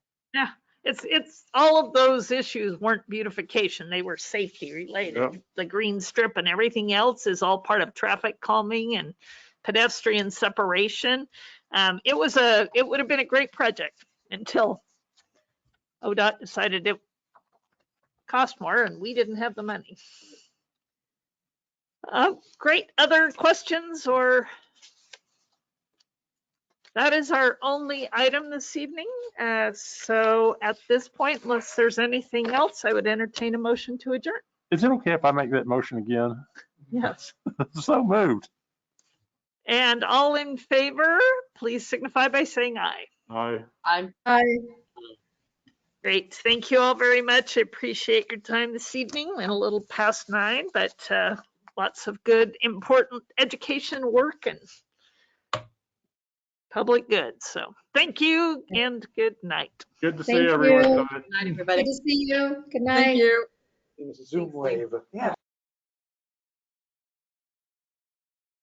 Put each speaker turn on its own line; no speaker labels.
Yeah, it's, it's, all of those issues weren't beautification, they were safety
Yeah.
related. The green strip and everything else is all part of traffic calming and pedestrian separation. Um, it was a, it would have been a great project until ODOT decided it cost more and we didn't have the money. Uh, great, other questions or? That is our only item this evening. Uh, So at this point, unless there's anything else, I would entertain a motion to adjourn.
Is it okay if I make that motion again?
Yes.
So moved.
And all in favor, please signify by saying aye.
Aye.
I'm,
Great. Thank you all very much. I appreciate your time this evening and a little past nine, but uh, lots of good, important education work and public good. So thank you and good night.
Good to see
Thank
everyone.
you.
Guys.
not everybody.
Good to see you. Good night.
Thank you.
It was a Zoom wave.